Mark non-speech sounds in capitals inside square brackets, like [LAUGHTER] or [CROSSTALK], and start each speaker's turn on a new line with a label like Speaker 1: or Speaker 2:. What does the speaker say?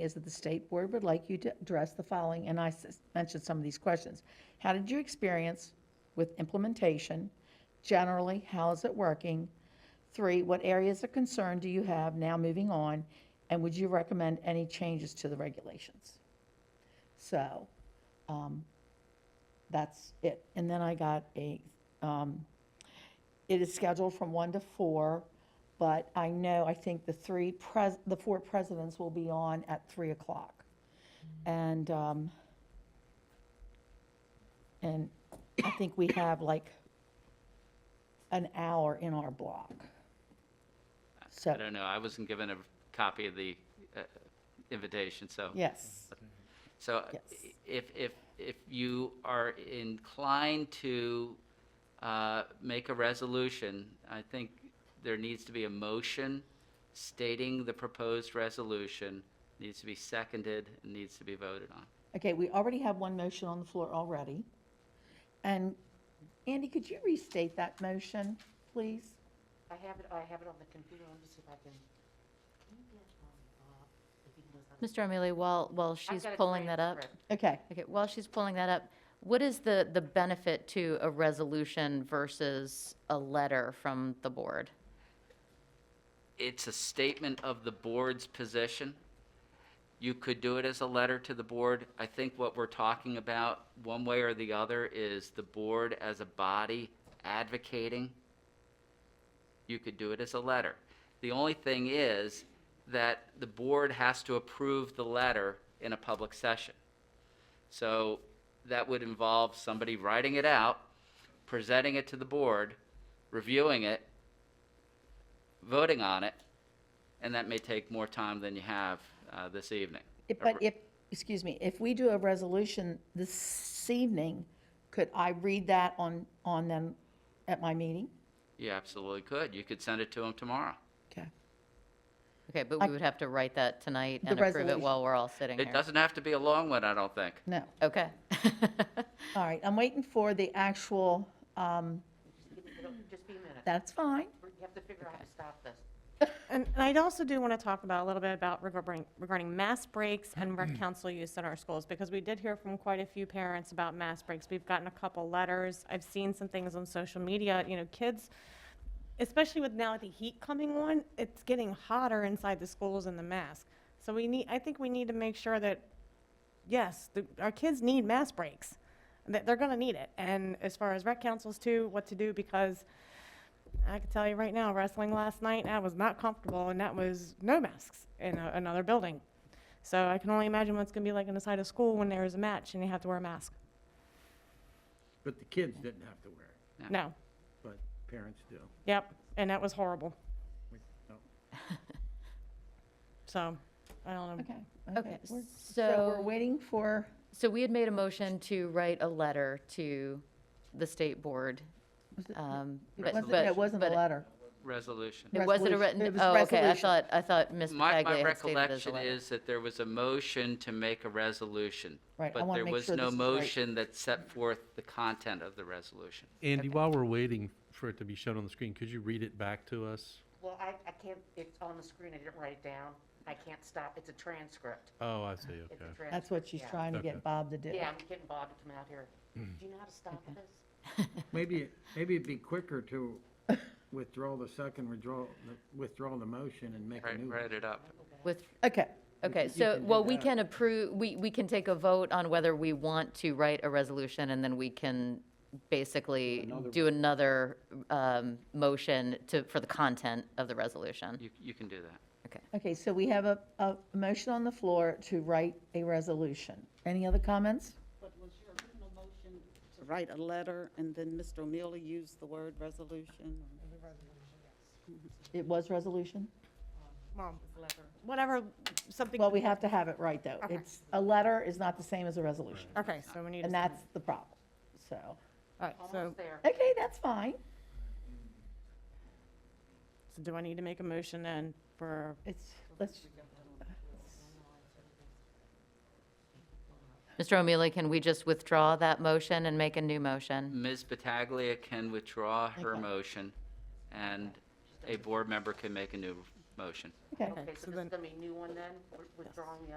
Speaker 1: is that the state board would like you to address the following, and I s- mentioned some of these questions. How did your experience with implementation? Generally, how is it working? Three, what areas of concern do you have now moving on? And would you recommend any changes to the regulations? So, um, that's it. And then I got a, um, it is scheduled from one to four, but I know, I think the three pres, the four presidents will be on at three o'clock. And, um, and I think we have like an hour in our block.
Speaker 2: I
Speaker 1: So,
Speaker 2: don't know, I wasn't given a copy of the uh, invitation, so.
Speaker 1: yes,
Speaker 2: So uh,
Speaker 1: Yes.
Speaker 2: i- if, if, if you are inclined to uh, make a resolution, I think there needs to be a motion stating the proposed resolution, needs to be seconded, and needs to be voted on.
Speaker 1: okay, we already have one motion on the floor already. And Andy, could you restate that motion, please?
Speaker 3: I have it, I have it on the computer, let me see if I can. can you get, um, Bob, if he knows how to-
Speaker 4: Mr. O'Mealy, while, while
Speaker 3: I've
Speaker 4: she's
Speaker 3: got a
Speaker 4: pulling that up,
Speaker 3: transcript.
Speaker 1: Okay,
Speaker 4: okay, while she's pulling that up, what is the, the benefit to a resolution versus a letter from the board?
Speaker 2: it's a statement of the board's position. You could do it as a letter to the board. I think what we're talking about, one way or the other, is the board as a body advocating. You could do it as a letter. The only thing is that the board has to approve the letter in a public session. So that would involve somebody writing it out, presenting it to the board, reviewing it, voting on it, and that may take more time than you have uh, this evening.
Speaker 1: If- But if, excuse me, if we do a resolution this evening, could I read that on, on them at my meeting?
Speaker 2: You absolutely could. You could send it to them tomorrow.
Speaker 1: Okay.
Speaker 4: Okay, but
Speaker 1: I-
Speaker 4: we would have to write that tonight
Speaker 1: The
Speaker 4: and approve it
Speaker 1: resolution.
Speaker 4: while we're all sitting
Speaker 2: It
Speaker 4: here.
Speaker 2: doesn't have to be a long one, I don't think.
Speaker 1: No.
Speaker 4: Okay. [LAUGHS]
Speaker 1: All right, I'm waiting for the actual, um,
Speaker 3: Just give me- it'll- Just be a minute,
Speaker 1: that's fine.
Speaker 3: We're- you have to figure out how to stop this.
Speaker 5: And and I'd also do want to talk about, a little bit about regarding, regarding mass breaks and rec council use in our schools, because we did hear from quite a few parents about mass breaks. We've gotten a couple letters, I've seen some things on social media, you know, kids, especially with now the heat coming on, it's getting hotter inside the schools in the mask. So we need, I think we need to make sure that, yes, the- our kids need mass breaks, that they're going to need it. And as far as rec councils too, what to do, because I can tell you right now, wrestling last night, I was not comfortable, and that was no masks in a, another building. So I can only imagine what it's going to be like inside a school when there is a match and you have to wear a mask.
Speaker 6: But the kids didn't have to wear it,
Speaker 2: Yeah.
Speaker 5: No.
Speaker 6: but parents do.
Speaker 5: Yep. And that was horrible.
Speaker 6: We- no.
Speaker 5: [LAUGHS] So I don't know.
Speaker 1: Okay.
Speaker 4: Okay,
Speaker 1: we're- So we're
Speaker 4: so,
Speaker 1: waiting for,
Speaker 4: so we had made a motion to write a letter to the state board. um, but-
Speaker 1: wasn't-
Speaker 4: but-
Speaker 1: it wasn't a
Speaker 4: but-
Speaker 1: letter.
Speaker 2: Resolution.
Speaker 4: It wasn't a
Speaker 1: Resolution. It
Speaker 4: written,
Speaker 1: was
Speaker 4: oh, okay, I
Speaker 1: resolution.
Speaker 4: thought, I thought Ms.
Speaker 2: My, my
Speaker 4: Pataglia had stated it as a
Speaker 2: recollection
Speaker 4: letter.
Speaker 2: is that there was a motion to make a resolution.
Speaker 1: Right, I
Speaker 2: But
Speaker 1: wanna
Speaker 2: there
Speaker 1: make
Speaker 2: was
Speaker 1: sure
Speaker 2: no
Speaker 1: this is right.
Speaker 2: motion that set forth the content of the resolution.
Speaker 7: Andy, while we're waiting for it to be shown on the screen, could you read it back to us?
Speaker 3: Well, I, I can't, it's on the screen, I didn't write it down, I can't stop, it's a transcript.
Speaker 7: Oh, I see,
Speaker 3: It's a
Speaker 7: okay.
Speaker 3: transcript.
Speaker 1: That's what she's
Speaker 3: yeah.
Speaker 1: trying to get
Speaker 7: Okay.
Speaker 1: Bob to do.
Speaker 3: Yeah, I'm getting Bob to come out here. Do you know how to stop this?
Speaker 6: Maybe, maybe it'd be quicker to withdraw the second, withdraw, the- withdraw the motion and make a
Speaker 2: Right,
Speaker 6: new one.
Speaker 2: write it up.
Speaker 4: With,
Speaker 1: Okay,
Speaker 4: okay,
Speaker 6: you
Speaker 4: so,
Speaker 6: can do
Speaker 4: well, we
Speaker 6: that.
Speaker 4: can approve, we, we can take a vote on whether we want to write a resolution, and then we can basically do another, um, motion to, for the content of the resolution.
Speaker 2: You, you can do that.
Speaker 4: Okay.
Speaker 1: okay, so we have a, a motion on the floor to write a resolution. Any other comments?
Speaker 8: But was your original motion to write a letter and then Mr. O'Meara used the word resolution?
Speaker 1: It was resolution?
Speaker 5: Well, whatever, something.
Speaker 1: Well, we have to have it right, though. It's, a letter is not the same as a resolution.
Speaker 5: Okay, so we need.
Speaker 1: And
Speaker 5: to-
Speaker 1: that's the problem, so.
Speaker 5: All right, so,
Speaker 3: Almost there.
Speaker 1: Okay, that's fine.
Speaker 5: so do I need to make a motion then for,
Speaker 1: It's, let's,
Speaker 4: Mr. O'Mealy, can we just withdraw that motion and make a new motion?
Speaker 2: Ms. Pataglia can withdraw her motion, and a board member can make a new motion.
Speaker 1: okay.
Speaker 3: Okay, so this is gonna be a new one then, We're withdrawing the other